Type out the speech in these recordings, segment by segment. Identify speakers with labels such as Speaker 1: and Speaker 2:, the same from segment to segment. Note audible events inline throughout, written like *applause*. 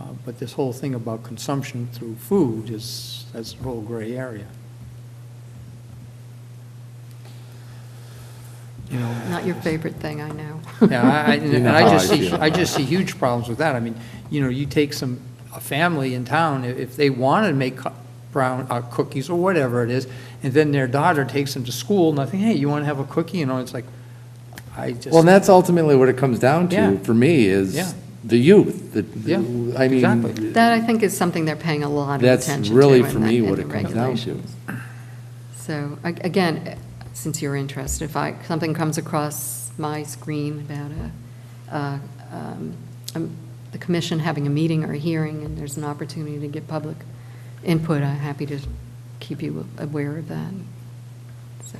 Speaker 1: Uh, but this whole thing about consumption through food is, that's the whole gray area. You know,
Speaker 2: Not your favorite thing, I know.
Speaker 1: Yeah,
Speaker 3: *laughs*
Speaker 1: I, I- and I just
Speaker 3: how I
Speaker 1: see,
Speaker 3: feel.
Speaker 1: I just see huge problems with that. I mean, you know, you take some, a family in town, i- if they want to make cu- brown, uh, cookies or whatever it is, and then their daughter takes them to school, and I think, hey, you want to have a cookie? You know, it's like, I just.
Speaker 3: Well, and that's ultimately what it comes down
Speaker 1: Yeah.
Speaker 3: to, for me,
Speaker 1: Yeah.
Speaker 3: is the youth, the,
Speaker 1: Yeah,
Speaker 3: I
Speaker 1: exactly.
Speaker 3: mean,
Speaker 2: *laughs* That, I think, is something they're paying a lot of attention
Speaker 3: that's
Speaker 2: to.
Speaker 3: really,
Speaker 2: in
Speaker 3: for
Speaker 2: the-
Speaker 3: me,
Speaker 2: in
Speaker 3: what
Speaker 2: the
Speaker 3: it comes down to.
Speaker 2: regulations. So, a- again, eh, since you're interested, if I, something comes across my screen about a, uh, um, um, the commission having a meeting or a hearing, and there's an opportunity to get public input, I'm happy to keep you aware of that, so.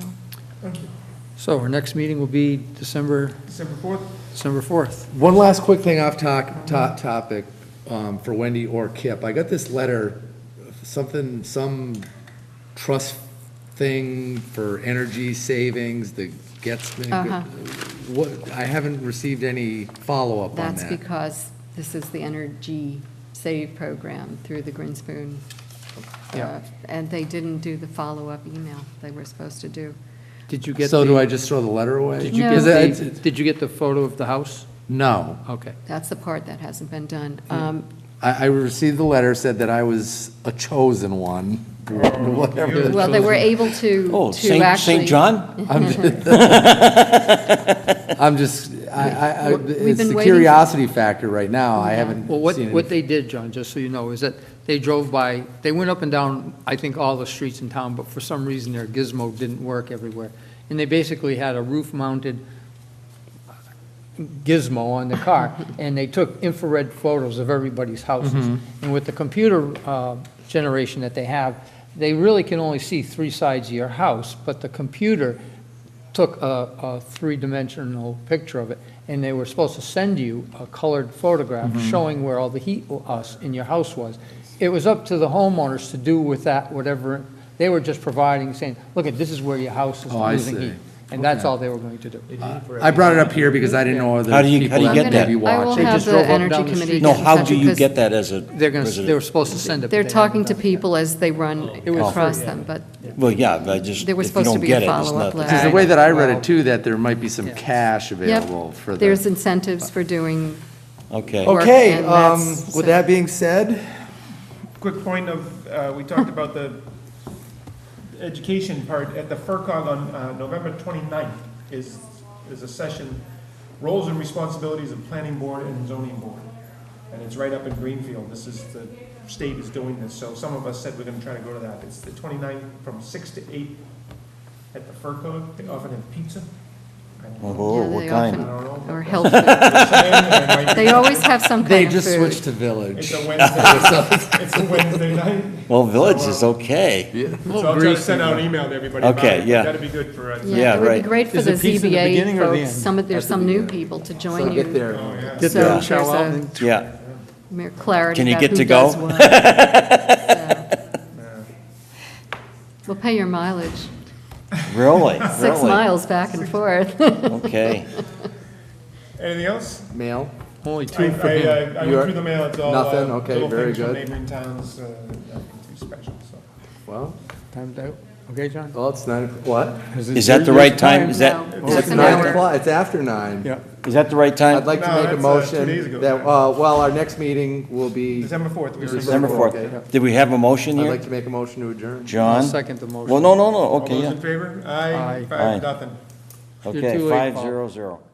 Speaker 1: So our next meeting will be December,
Speaker 4: December 4th?
Speaker 1: December 4th.
Speaker 3: One last quick thing off talk, top topic, um, for Wendy or Kip. I got this letter, something, some trust thing for energy savings, the gets,
Speaker 2: Uh-huh.
Speaker 3: what, I haven't received any follow-up on
Speaker 2: That's
Speaker 3: that.
Speaker 2: because this is the Energy Save Program through the Grinspoon.
Speaker 1: Yeah.
Speaker 2: uh, And they didn't do the follow-up email they were supposed to do.
Speaker 1: Did you get
Speaker 3: So do I
Speaker 1: the,
Speaker 3: just throw the letter away?
Speaker 1: did you
Speaker 2: No.
Speaker 1: get
Speaker 3: Is it-
Speaker 1: the, did you get the photo of the house?
Speaker 3: No.
Speaker 1: Okay.
Speaker 2: That's the part that hasn't been done. Um,
Speaker 3: I, I received the letter, said that I was a chosen one,
Speaker 1: Oh,
Speaker 3: *laughs* whatever.
Speaker 2: Well, they were able to,
Speaker 5: Oh,
Speaker 2: to
Speaker 5: St.
Speaker 2: actually.
Speaker 5: St. John?
Speaker 3: I'm
Speaker 2: *laughs*
Speaker 3: just, I'm just, I, I, I-
Speaker 2: We've been
Speaker 3: it's the
Speaker 2: waiting-
Speaker 3: curiosity factor right now, I haven't
Speaker 1: Well, what,
Speaker 3: seen
Speaker 1: what
Speaker 3: it.
Speaker 1: they did, John, just so you know, is that they drove by, they went up and down, I think, all the streets in town, but for some reason their gizmo didn't work everywhere. And they basically had a roof-mounted gizmo on the
Speaker 3: *laughs*
Speaker 1: car, and they took infrared photos of everybody's houses.
Speaker 3: Mm-hmm.
Speaker 1: And with the computer uh, generation that they have, they really can only see three sides of your house, but the computer took a, a three-dimensional picture of it, and they were supposed to send you a colored photograph
Speaker 3: Mm-hmm.
Speaker 1: showing where all the heat us in your house was. It was up to the homeowners to do with that whatever, they were just providing, saying, look, at this is where your house is
Speaker 3: Oh, I
Speaker 1: losing
Speaker 3: see.
Speaker 1: heat. And that's
Speaker 3: Okay.
Speaker 1: all they were going to do.
Speaker 3: I brought it up here because I didn't know other
Speaker 5: How do you- how
Speaker 3: people
Speaker 5: do you
Speaker 3: that
Speaker 5: get
Speaker 3: may
Speaker 5: that?
Speaker 3: be
Speaker 2: I will
Speaker 3: watching.
Speaker 1: They
Speaker 2: have
Speaker 1: just drove
Speaker 2: the
Speaker 1: up and
Speaker 2: Energy
Speaker 1: down the
Speaker 2: Committee
Speaker 1: street.
Speaker 2: get
Speaker 5: No,
Speaker 2: in
Speaker 5: how
Speaker 2: touch
Speaker 5: do you
Speaker 2: because
Speaker 5: get that as a
Speaker 1: They're gonna, they were
Speaker 5: resident?
Speaker 1: supposed to send it. but
Speaker 2: They're
Speaker 1: they haven't
Speaker 2: talking to
Speaker 1: done it Oh, yet.
Speaker 2: people as they run
Speaker 1: It was
Speaker 2: across
Speaker 1: free,
Speaker 2: them, but
Speaker 5: Well, Oh, yeah, but I just, if
Speaker 2: There
Speaker 5: you
Speaker 2: was supposed to
Speaker 5: don't
Speaker 2: be a
Speaker 5: get it, it's
Speaker 2: follow-up
Speaker 5: not. the-
Speaker 2: letter.
Speaker 3: Because the way that I read it too, that there might be some cash
Speaker 2: Yep.
Speaker 3: available for the.
Speaker 2: There's incentives for doing,
Speaker 5: Okay.
Speaker 2: Or-
Speaker 3: Okay,
Speaker 2: and
Speaker 3: um,
Speaker 2: that's-
Speaker 3: with that being said,
Speaker 4: Quick point of, uh, we talked about the education part, at the FERCog on uh, November 29th is, is a session, roles and responsibilities of planning board and zoning board. And it's right up in Greenfield, this is, the state is doing this, so some of us said we're gonna try to go to that. It's the 29th from 6 to 8 at the FERCog, they often have pizza. I don't know.
Speaker 5: Oh,
Speaker 2: Yeah,
Speaker 5: what
Speaker 2: they
Speaker 5: kind?
Speaker 4: I don't know.
Speaker 2: or health food. They always have some
Speaker 3: they
Speaker 2: kind of
Speaker 3: just switched
Speaker 2: food.
Speaker 3: to village.
Speaker 4: It's a Wednesday, it's a Wednesday night.
Speaker 5: Well, Village is
Speaker 4: So, uh,
Speaker 5: okay.
Speaker 4: So I'll try to send out an email to everybody about
Speaker 5: Okay,
Speaker 4: it.
Speaker 5: yeah.
Speaker 4: That'd be good for us.
Speaker 5: Yeah,
Speaker 2: It would be
Speaker 5: right.
Speaker 2: great for
Speaker 1: Is
Speaker 2: the
Speaker 1: the piece in the
Speaker 2: ZBA
Speaker 1: beginning or the
Speaker 2: folks,
Speaker 1: end?
Speaker 2: some, of there's some new people to join you.
Speaker 1: Get
Speaker 2: So
Speaker 1: the
Speaker 2: there's
Speaker 1: show out
Speaker 2: a-
Speaker 1: and-
Speaker 5: Yeah,
Speaker 2: Mere clarity
Speaker 5: Can you
Speaker 2: about
Speaker 5: get
Speaker 2: who
Speaker 5: to
Speaker 2: does
Speaker 5: go? *laughs*
Speaker 2: what. So. We'll pay your mileage, *laughs*
Speaker 5: really,
Speaker 2: six
Speaker 5: really?
Speaker 2: miles back and forth.
Speaker 5: Okay.
Speaker 4: Anything else?
Speaker 3: Mail?
Speaker 1: Only two
Speaker 4: I,
Speaker 1: for
Speaker 4: I,
Speaker 1: him.
Speaker 4: I- I
Speaker 3: You're-
Speaker 4: went through the mail, it's all. uh,
Speaker 3: nothing? Okay,
Speaker 4: little
Speaker 3: very
Speaker 4: things from
Speaker 3: good.
Speaker 4: Neighboring towns, uh, nothing too special, so.
Speaker 3: Well,
Speaker 1: Time's out. Okay, John?
Speaker 3: well, it's nine, what?
Speaker 5: Is that the right time? Is that,
Speaker 2: *laughs* No,
Speaker 5: is
Speaker 2: that's
Speaker 5: that,
Speaker 2: an
Speaker 3: Nine
Speaker 2: hour.
Speaker 3: o'clock, it's after nine.
Speaker 1: Yeah.
Speaker 5: is that the right
Speaker 3: I'd
Speaker 5: time?
Speaker 3: like to
Speaker 4: No,
Speaker 3: make a
Speaker 4: that's, uh, two
Speaker 3: motion
Speaker 4: days ago.
Speaker 3: that, uh, well, our next meeting will be,
Speaker 4: December fourth, we were.
Speaker 5: December
Speaker 3: Okay.
Speaker 5: 4th. Did we have a motion
Speaker 3: I'd
Speaker 5: here?
Speaker 3: like to make a motion to adjourn.
Speaker 1: I'll
Speaker 5: John?
Speaker 1: second the motion.
Speaker 5: Well, no, no, no,
Speaker 4: All
Speaker 5: okay,
Speaker 4: those
Speaker 5: yeah.
Speaker 4: in favor?
Speaker 1: Aye.
Speaker 4: Aye,
Speaker 5: Aye.
Speaker 4: five, nothing.
Speaker 1: You're
Speaker 5: Okay,
Speaker 1: too late, Paul.
Speaker 5: 500.